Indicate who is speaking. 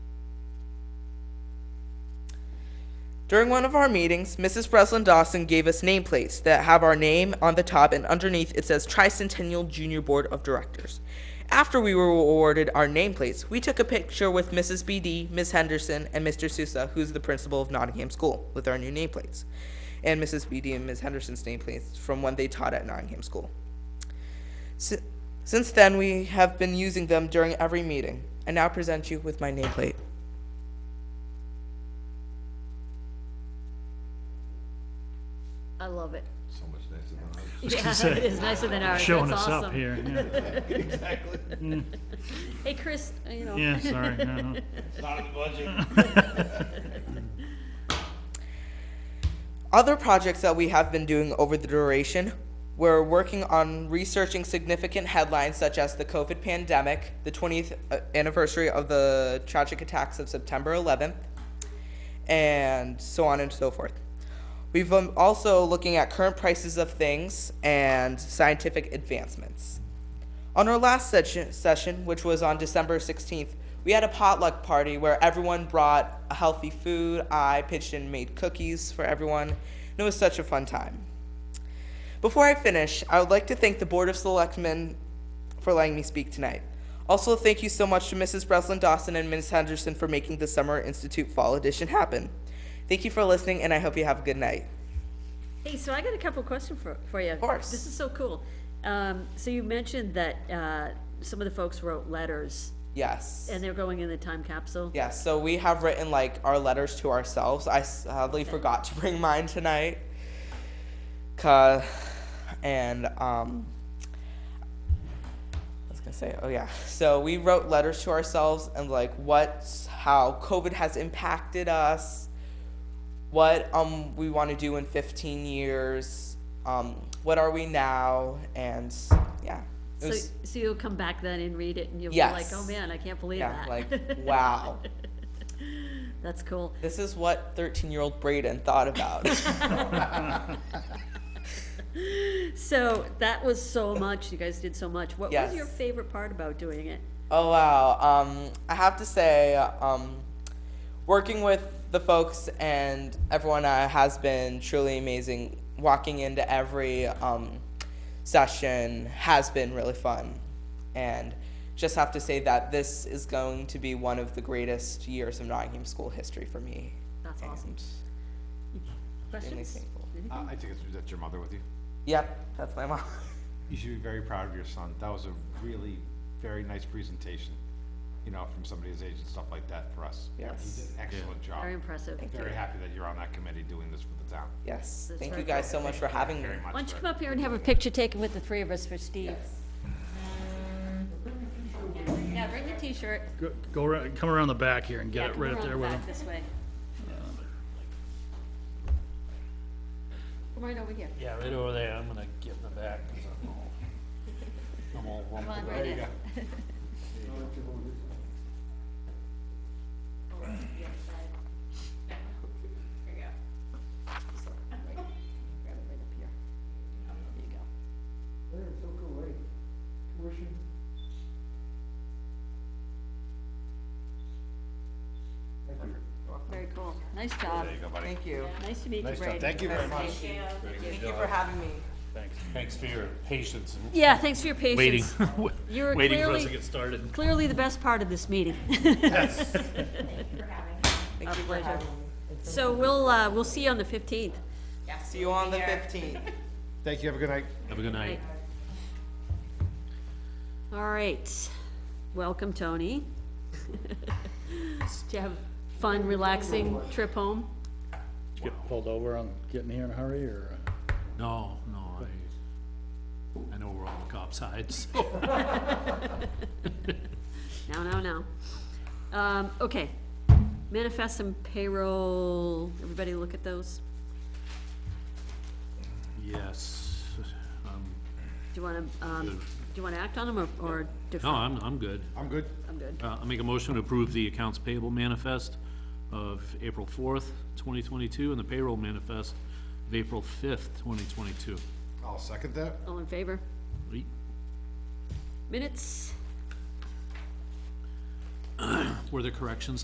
Speaker 1: During one of our meetings, Mrs. Breslin Dawson gave us nameplates that have our name on the top and underneath it says Tricentennial Junior Board of Directors. After we were awarded our nameplates, we took a picture with Mrs. BD, Ms. Henderson, and Mr. Sousa, who's the principal of Nottingham School, with our new nameplates, and Mrs. BD and Ms. Henderson's nameplates from when they taught at Nottingham School. Si- Since then, we have been using them during every meeting. I now present you with my nameplate.
Speaker 2: I love it.
Speaker 3: So much nicer than ours.
Speaker 2: Yeah, it is nicer than ours.
Speaker 4: showing
Speaker 2: That's
Speaker 4: us up
Speaker 2: awesome.
Speaker 4: here. Yeah,
Speaker 2: Hey, Chris, uh, you know.
Speaker 4: yeah sorry. I know.
Speaker 1: Other projects that we have been doing over the duration, we're working on researching significant headlines such as the COVID pandemic, the 20th anniversary of the tragic attacks of September 11th, and so on and so forth. We've been also looking at current prices of things and scientific advancements. On our last session, session, which was on December 16th, we had a potluck party where everyone brought a healthy food. I pitched in made cookies for everyone, and it was such a fun time. Before I finish, I would like to thank the Board of Selectmen for letting me speak tonight. Also, thank you so much to Mrs. Breslin Dawson and Ms. Henderson for making the Summer Institute Fall Edition happen. Thank you for listening, and I hope you have a good night.
Speaker 2: Hey, so I got a couple questions for, for you. Of
Speaker 1: course.
Speaker 2: This is so cool. Um, so you mentioned that, uh, some of the folks wrote letters
Speaker 1: Yes.
Speaker 2: and they're going in the time capsule.
Speaker 1: Yeah, so we have written like our letters to ourselves. I sadly forgot to bring mine tonight. Cause, and um, I was gonna say, oh yeah. So we wrote letters to ourselves and like what's how COVID has impacted us, what um we want to do in 15 years, um what are we now, and yeah. It
Speaker 2: So,
Speaker 1: was,
Speaker 2: so you'll come back then and read it and you'll be like,
Speaker 1: Yes.
Speaker 2: oh man, I can't believe
Speaker 1: yeah,
Speaker 2: that.
Speaker 1: like wow.
Speaker 2: That's cool.
Speaker 1: This is what 13 year old Brayden thought about.
Speaker 2: So that was so much. You guys did so much. What was
Speaker 1: Yes.
Speaker 2: your favorite part about doing it?
Speaker 1: oh, wow. Um, I have to say, um, working with the folks and everyone uh, has been truly amazing. Walking into every um, session has been really fun. And just have to say that this is going to be one of the greatest years of Nottingham school history for me.
Speaker 2: That's awesome.
Speaker 1: And extremely
Speaker 2: Questions?
Speaker 1: thankful.
Speaker 3: Uh, I think it's, that's your mother with you.
Speaker 1: Yep, that's my mom.
Speaker 3: You should be very proud of your son. That was a really very nice presentation, you know, from somebody his age and stuff like that for us.
Speaker 1: Yes.
Speaker 3: He did an excellent job.
Speaker 2: Very impressive.
Speaker 3: Very happy that you're on that committee doing this for the town.
Speaker 1: Yes.
Speaker 2: That's
Speaker 1: Thank
Speaker 2: very
Speaker 1: you guys so much for having me.
Speaker 3: Very much.
Speaker 2: Why don't you
Speaker 3: for-
Speaker 2: come up here and have a picture taken with the three of us for Steve? Yeah, bring the t-shirt.
Speaker 4: Go, go ar- come around the back here and
Speaker 2: Yeah,
Speaker 4: get it
Speaker 2: come
Speaker 4: right
Speaker 2: around
Speaker 4: up there
Speaker 2: the
Speaker 4: with him.
Speaker 2: back This way. Come right over here.
Speaker 5: Yeah, right over there, I'm gonna get in the back. 'cause I'm all- I'm all
Speaker 2: Come
Speaker 5: rumpled.
Speaker 2: on, right in. Very cool. Nice job.
Speaker 3: There you go, buddy.
Speaker 1: Thank you.
Speaker 2: Nice to meet you,
Speaker 5: Nice job.
Speaker 2: Brady.
Speaker 5: Thank you very much.
Speaker 1: Thank you for having me.
Speaker 5: Thanks. Thanks for your patience and
Speaker 2: Yeah, thanks for your
Speaker 5: waiting,
Speaker 2: patience. You were
Speaker 5: waiting for us to
Speaker 2: clearly-
Speaker 5: get started.
Speaker 2: Clearly the best part of this meeting.
Speaker 1: Thank you for
Speaker 2: pleasure.
Speaker 1: having me.
Speaker 2: So we'll, uh, we'll see you on the fifteenth.
Speaker 1: See you on the 15th.
Speaker 3: Thank you. Have a good night.
Speaker 5: Have a good night.
Speaker 2: All right, welcome, Tony. Did you have fun, relaxing trip home?
Speaker 4: Did you get pulled over on getting here in a hurry or?
Speaker 5: No, no, I, I know we're on the cop side, so.
Speaker 2: No, no, no. Um, okay, manifest and payroll, everybody look at those.
Speaker 5: Yes, um,
Speaker 2: Do you wanna, um, do you wanna act on them or, or defer?
Speaker 5: no, I'm, I'm good.
Speaker 3: I'm good.
Speaker 2: I'm good.
Speaker 5: Uh, I make a motion to approve the accounts payable manifest of April fourth, twenty twenty-two, and the payroll manifest of April fifth, twenty twenty-two.
Speaker 3: I'll second that.
Speaker 2: All in favor? Minutes?
Speaker 5: Were there corrections